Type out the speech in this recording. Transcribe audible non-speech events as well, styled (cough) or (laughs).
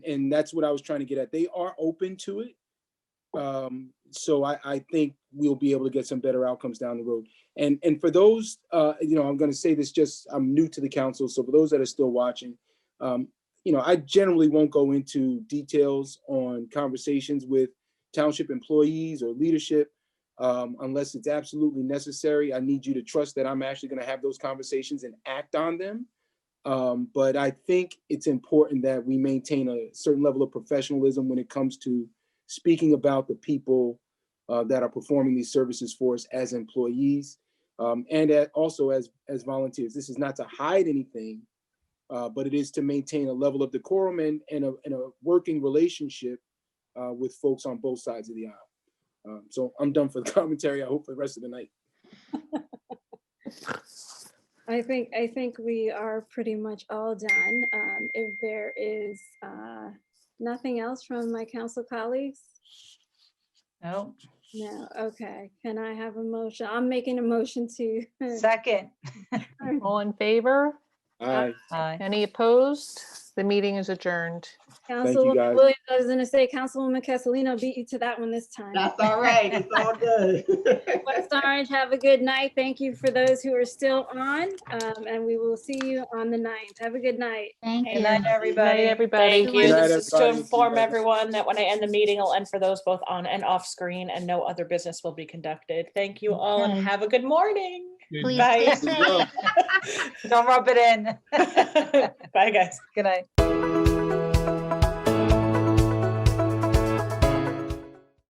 and that's what I was trying to get at. They are open to it. Um, so I, I think we'll be able to get some better outcomes down the road. And, and for those, uh, you know, I'm gonna say this just, I'm new to the council, so for those that are still watching, um, you know, I generally won't go into details on conversations with township employees or leadership um, unless it's absolutely necessary. I need you to trust that I'm actually gonna have those conversations and act on them. Um, but I think it's important that we maintain a certain level of professionalism when it comes to speaking about the people uh, that are performing these services for us as employees um, and at- also as, as volunteers. This is not to hide anything, uh, but it is to maintain a level of decorum and, and a, and a working relationship uh, with folks on both sides of the aisle. Um, so I'm done for the (laughs) commentary. I hope for the rest of the night. I think, I think we are pretty much all done. Um, If there is uh, nothing else from my council colleagues? No, No, okay. Can I have a motion? I'm making a motion to, (laughs) second. All in favor? Aye. Aye. Any opposed? The meeting is adjourned. guys. Councilwoman Williams, I was gonna say Councilwoman Castellino beat you to that one this time. That's all right. It's all good. (laughs) West Orange, have a good night. Thank you for those who are still on, um, and we will see you on the ninth. Have a good night. Thank Good you. night, everybody. Night, everybody. Thank Good you. night, This is to everybody. inform Goodbye. everyone that when I end the meeting, I'll end for those both on and off screen and no other business will be conducted. Thank you all and Okay. have a good (laughs) morning. Please Bye. stay safe. Bye, Don't rub it in. (laughs) guys. Good night.